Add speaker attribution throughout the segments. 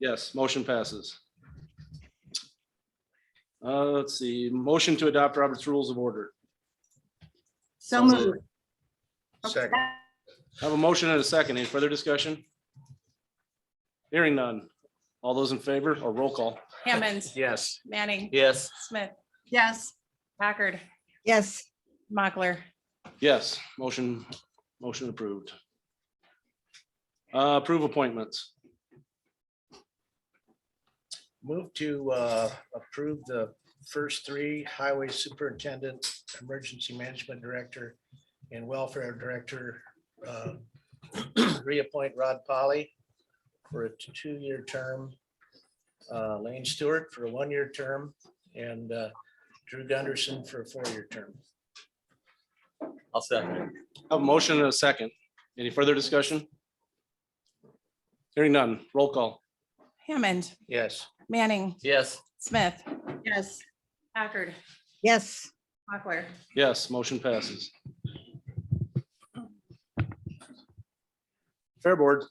Speaker 1: Yes, motion passes. Uh, let's see, motion to adopt Robert's Rules of Order.
Speaker 2: So
Speaker 1: Sounds
Speaker 2: moved.
Speaker 3: Second.
Speaker 1: I Have a motion and a second. Any further discussion? Hearing none. All those in favor or roll call?
Speaker 4: Hammond,
Speaker 3: Yes.
Speaker 4: Manning,
Speaker 3: Yes.
Speaker 4: Smith,
Speaker 2: Yes,
Speaker 4: Packard,
Speaker 5: yes,
Speaker 4: Mochler,
Speaker 1: Yes, motion, motion approved. Uh, approve appointments.
Speaker 3: Move to uh, approve the first three highway superintendent, emergency management director, and welfare director. uh, Reappoint Rod Polly for a two-year term. uh, Lane Stewart for a one-year term and uh, Drew Gunderson for a four-year term.
Speaker 6: I'll second.
Speaker 1: I Have a motion and a second. Any further discussion? Hearing none. Roll call.
Speaker 4: Hammond,
Speaker 3: Yes.
Speaker 4: Manning,
Speaker 6: Yes,
Speaker 4: Smith,
Speaker 2: yes,
Speaker 4: Packard,
Speaker 5: yes,
Speaker 4: Mochler,
Speaker 1: Yes, motion passes. Fair Board.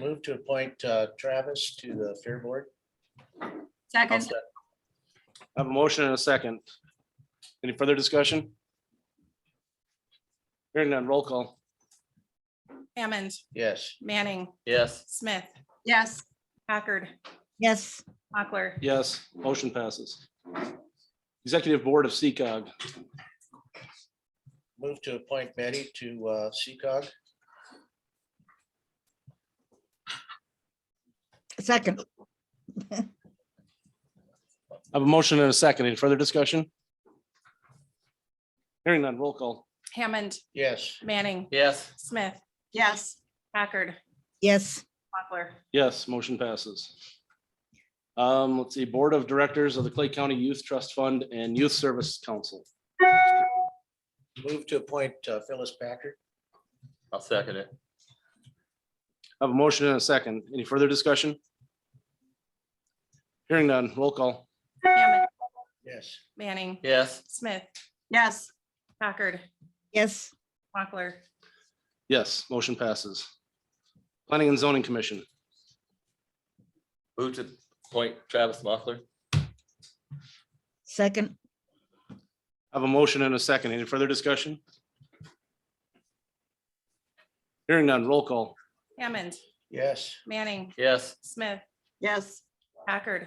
Speaker 3: Move to appoint uh, Travis to the Fair Board. I'll
Speaker 2: second,
Speaker 3: sec-
Speaker 1: I have a motion and a second. Any further discussion? Hearing none, roll call.
Speaker 4: Hammond,
Speaker 3: Yes.
Speaker 4: Manning,
Speaker 6: yes,
Speaker 4: Smith,
Speaker 2: yes,
Speaker 4: Packard,
Speaker 5: yes,
Speaker 4: Mochler,
Speaker 1: Yes, motion passes. Executive Board of CCOG,
Speaker 3: Move to appoint Betty to uh, CCOG.
Speaker 5: second,
Speaker 1: I have a motion and a second. Any further discussion? Hearing none, roll call.
Speaker 4: Hammond,
Speaker 3: Yes.
Speaker 4: Manning,
Speaker 6: yes,
Speaker 4: Smith,
Speaker 2: yes,
Speaker 4: Packard,
Speaker 5: yes,
Speaker 4: Mochler,
Speaker 1: Yes, motion passes. Um, let's see, Board of Directors of the Clay County Youth Trust Fund and Youth Service Council.
Speaker 3: Move to appoint uh, Phyllis Packard.
Speaker 6: I'll second it.
Speaker 1: I have a motion and a second. Any further discussion? Hearing none, roll call.
Speaker 4: Hammond,
Speaker 3: Yes.
Speaker 4: Manning,
Speaker 6: Yes,
Speaker 4: Smith,
Speaker 2: yes,
Speaker 4: Packard,
Speaker 5: yes,
Speaker 4: Mochler,
Speaker 1: Yes, motion passes. Planning and Zoning Commission.
Speaker 6: move to appoint Travis Mochler.
Speaker 5: second,
Speaker 1: I have a motion and a second. Any further discussion? Hearing none, roll call.
Speaker 4: Hammond,
Speaker 3: Yes.
Speaker 4: Manning,
Speaker 6: Yes,
Speaker 4: Smith,
Speaker 2: yes,
Speaker 4: Packard,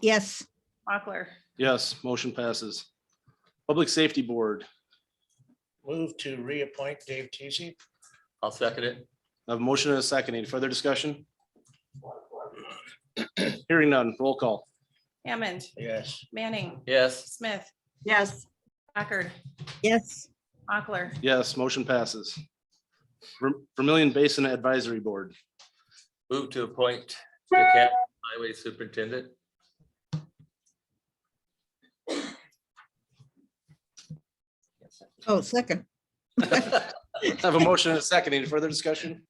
Speaker 5: yes,
Speaker 4: Mochler,
Speaker 1: Yes, motion passes. Public Safety Board,
Speaker 3: Move to reappoint Dave Teasy.
Speaker 6: I'll second it.
Speaker 1: I have a motion and a second. Any further discussion? Hearing none, roll call.
Speaker 4: Hammond,
Speaker 3: Yes.
Speaker 4: Manning,
Speaker 6: Yes,
Speaker 4: Smith,
Speaker 2: yes,
Speaker 4: Packard,
Speaker 5: yes,
Speaker 4: Mochler,
Speaker 1: Yes, motion passes. Ver- Vermillion Basin Advisory Board,
Speaker 6: move to appoint Dick Hatt, Highway Superintendent.
Speaker 5: oh, second,
Speaker 1: I have a motion and a second. Any further discussion?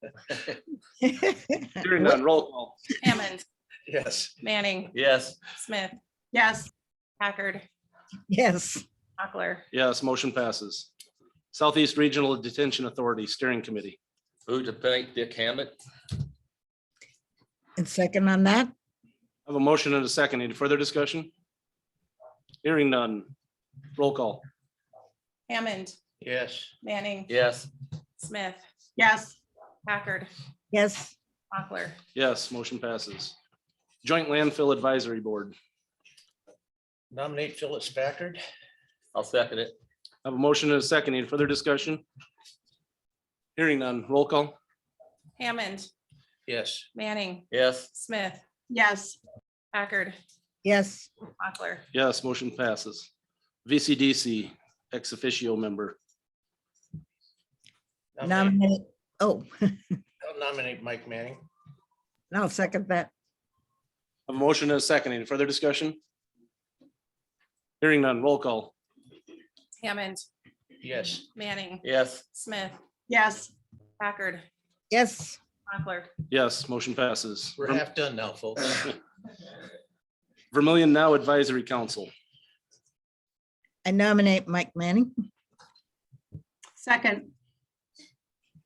Speaker 1: Hearing none, roll call.
Speaker 4: Hammond,
Speaker 3: Yes.
Speaker 4: Manning,
Speaker 6: Yes,
Speaker 4: Smith,
Speaker 2: yes,
Speaker 4: Packard,
Speaker 5: yes,
Speaker 4: Mochler,
Speaker 1: Yes, motion passes. Southeast Regional Detention Authority Steering Committee.
Speaker 6: move to appoint Dick Hammett.
Speaker 5: and second on that,
Speaker 1: I have a motion and a second. Any further discussion? Hearing none. Roll call.
Speaker 4: Hammond,
Speaker 3: Yes.
Speaker 4: Manning,
Speaker 6: Yes,
Speaker 4: Smith,
Speaker 2: yes,
Speaker 4: Packard,
Speaker 5: yes,
Speaker 4: Mochler,
Speaker 1: Yes, motion passes. Joint Landfill Advisory Board.
Speaker 3: Nominate Phyllis Packard.
Speaker 6: I'll second it.
Speaker 1: I have a motion and a second. Any further discussion? Hearing none. Roll call.
Speaker 4: Hammond,
Speaker 3: Yes.
Speaker 4: Manning,
Speaker 6: Yes,
Speaker 4: Smith,
Speaker 2: yes,
Speaker 4: Packard,
Speaker 5: yes,
Speaker 4: Mochler,
Speaker 1: Yes, motion passes. VCDC ex officio member.
Speaker 3: Nominate-
Speaker 5: nominate, oh,
Speaker 3: I'll Nominate Mike Manning.
Speaker 5: I'll second that,
Speaker 1: I have a motion and a second. Any further discussion? Hearing none. Roll call.
Speaker 4: Hammond,
Speaker 3: Yes.
Speaker 4: Manning,
Speaker 6: yes,
Speaker 4: Smith,
Speaker 2: yes,
Speaker 4: Packard,
Speaker 5: yes,
Speaker 4: Mochler,
Speaker 1: Yes, motion passes.
Speaker 3: We're half done now, folks.
Speaker 1: Vermillion Now Advisory Council.
Speaker 5: I nominate Mike Manning,
Speaker 2: second,